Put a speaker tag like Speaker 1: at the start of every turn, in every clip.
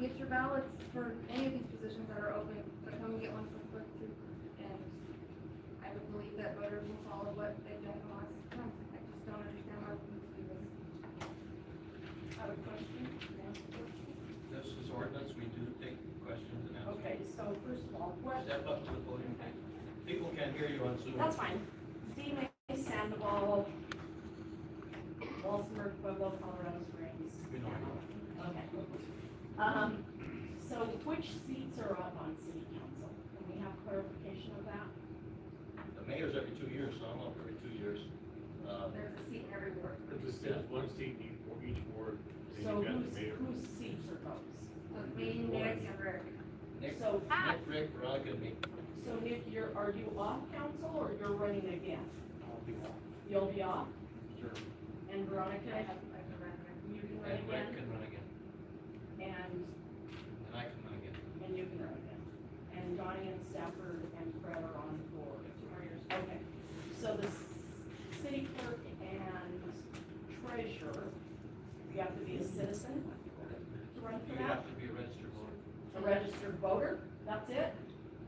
Speaker 1: get your ballots for any of these positions that are open, but come and get one from Quick Trip. And I would believe that voters will follow what they've done in the last month. I just don't understand why we need to do this. I would question,
Speaker 2: This is ordinance, we do take questions and answers.
Speaker 3: Okay, so first of all, what,
Speaker 2: Step up to the podium, thank you. People can't hear you on Zoom.
Speaker 3: that's fine. D. May Sandoval, Walsenburg, Pueblo, Colorado Springs.
Speaker 2: We know.
Speaker 3: Okay. Um, so which seats are up on city council? Can we have clarification of that?
Speaker 2: The mayor's every two years, so I'm up every two years. Uh,
Speaker 1: there's a seat in every ward.
Speaker 4: It just says one seat in each ward, and
Speaker 3: So
Speaker 4: you've got
Speaker 3: whose,
Speaker 4: the mayor.
Speaker 3: whose seats are those?
Speaker 1: So it's me, Nick, and Rick.
Speaker 2: Nick,
Speaker 3: So, ah,
Speaker 2: Nick, Rick, Veronica, and me.
Speaker 3: so Nick, you're, are you off council or you're running again?
Speaker 4: I'll be off.
Speaker 3: You'll be off
Speaker 4: Sure.
Speaker 3: and Veronica,
Speaker 1: I have, I have a record.
Speaker 3: you can run
Speaker 2: And Rick
Speaker 3: again
Speaker 2: can run again,
Speaker 3: and
Speaker 2: and I can run again.
Speaker 3: And you can run it. And Donnie and Stafford and Fred are on for, okay. So the s- city clerk and treasurer, you have to be a citizen to run for
Speaker 2: You
Speaker 3: that?
Speaker 2: have to be a registered voter.
Speaker 3: A registered voter, that's it?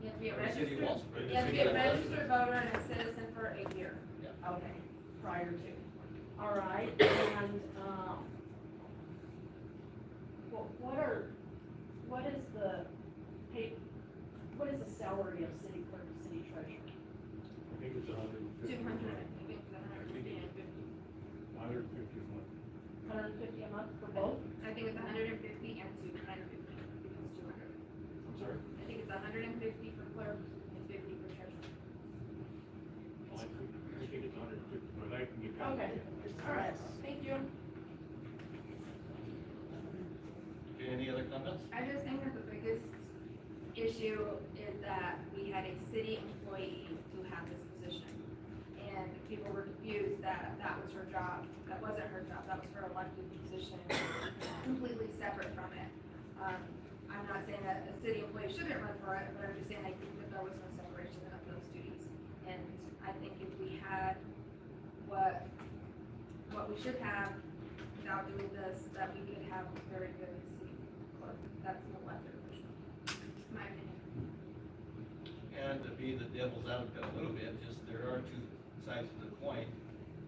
Speaker 1: You have to be a
Speaker 2: In the city of
Speaker 1: registered,
Speaker 2: Walsenburg.
Speaker 1: you have to be a registered voter and a citizen for a year.
Speaker 3: Okay, prior to. All right, and, um, what, what are, what is the pay, what is the salary of city clerk, and city treasurer?
Speaker 4: I think it's a hundred and
Speaker 1: Two
Speaker 4: fifty.
Speaker 1: hundred, I think it's a hundred and fifty.
Speaker 4: Hundred and fifty a month.
Speaker 3: Hundred and fifty a month for both?
Speaker 1: I think it's hundred and fifty and two hundred and fifty, it's two hundred.
Speaker 4: I'm sorry.
Speaker 1: I think it's hundred and fifty for clerk and fifty for treasurer.
Speaker 4: I think, I think it's hundred and fifty, but I can get back to
Speaker 3: Okay.
Speaker 4: you.
Speaker 3: All right, thank you.
Speaker 2: Okay, any other comments?
Speaker 1: I just think that the biggest issue is that we had a city employee who had this position. And people were confused that that was her job, that wasn't her job, that was her elected position, completely separate from it. Um, I'm not saying that a city employee shouldn't run for it, but I'm just saying I think that there was no separation of those duties. And I think if we had what, what we should have without doing this, that we could have a very good city clerk. That's an elected official, my opinion.
Speaker 2: And to be the devil's advocate a little bit, just there are two sides to the coin.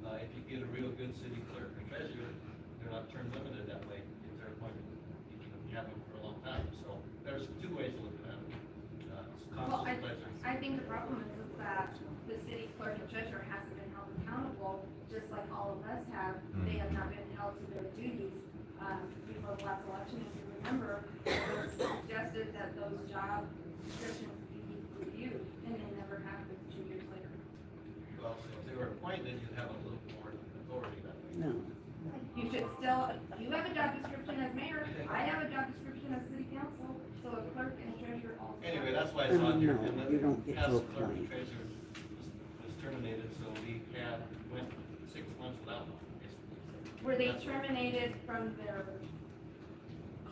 Speaker 2: Uh, if you get a real good city clerk or treasurer, they're not term limited that way. If they're appointed, you can have them for a long time. So there's two ways of looking at it. Uh, it's
Speaker 1: Well,
Speaker 2: constant pleasure.
Speaker 1: I think the problem is is that the city clerk and treasurer hasn't been held accountable, just like all of us have. They have not been held to their duties. Um, before the last election, if you remember, it was suggested that those job descriptions be reviewed, and they never happened two years later.
Speaker 2: Well, so if they were appointed, you'd have a little more authority that way.
Speaker 5: No.
Speaker 1: You should still, you have a job description as mayor, I have a job description as city council, so a clerk and a treasurer also. have-
Speaker 2: Anyway, that's why it's on here.
Speaker 5: No,
Speaker 2: And then
Speaker 5: you don't get to
Speaker 2: council clerk and
Speaker 5: appoint.
Speaker 2: Treasurer was- was terminated, so we had, went six months without one. basically.
Speaker 1: Were they terminated from their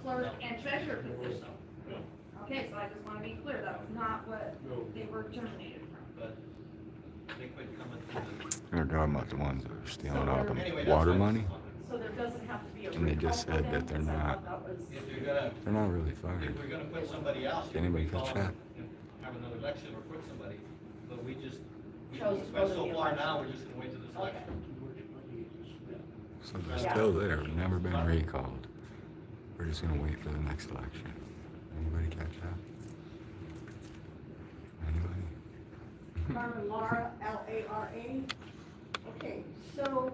Speaker 1: clerk and treasurer position?
Speaker 2: So,
Speaker 1: Okay, so I just wanna be clear, that's not what
Speaker 4: No,
Speaker 1: they were terminated from.
Speaker 2: But they quit coming to the
Speaker 6: They're talking about the ones that are stealing all
Speaker 2: Anyway,
Speaker 6: the
Speaker 2: that's
Speaker 6: water
Speaker 2: why it's
Speaker 6: money.
Speaker 2: on.
Speaker 3: So there doesn't have to be a.
Speaker 6: And they just
Speaker 3: recall for
Speaker 6: said that
Speaker 3: them,
Speaker 6: they're
Speaker 3: 'cause I thought That was,
Speaker 2: If you're gonna,
Speaker 6: They're not really
Speaker 2: if
Speaker 6: fired.
Speaker 2: we're gonna put somebody else. you
Speaker 6: Anybody
Speaker 2: can
Speaker 6: catch
Speaker 2: call
Speaker 6: that?
Speaker 2: and Have another election or put somebody, but we just, we
Speaker 3: Chose
Speaker 2: went
Speaker 3: to go to
Speaker 2: so
Speaker 3: the
Speaker 2: far
Speaker 3: election.
Speaker 2: now, we're just gonna wait till this
Speaker 3: okay,
Speaker 2: election.
Speaker 6: So they're still there, never been recalled. We're just gonna wait for the next election. Anybody catch that? Anybody?
Speaker 5: Carmen Lara, L-A-R-A. Okay, so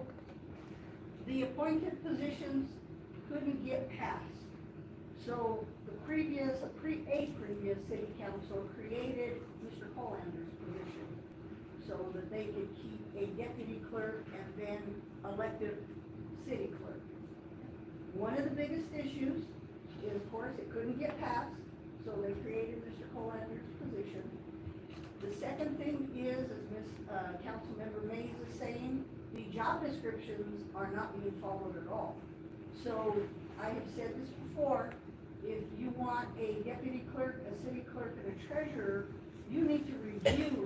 Speaker 5: the appointed positions couldn't get passed. So the previous, pre, a previous city council created Mr. Colander's position so that they could keep a deputy clerk and then elected city clerk. One of the biggest issues is, of course, it couldn't get passed, so they created Mr. Colander's position. The second thing is, as Ms., uh, Councilmember Mays is saying, the job descriptions are not being followed at all. So I have said this before, if you want a deputy clerk, a city clerk, and a treasurer, you need to review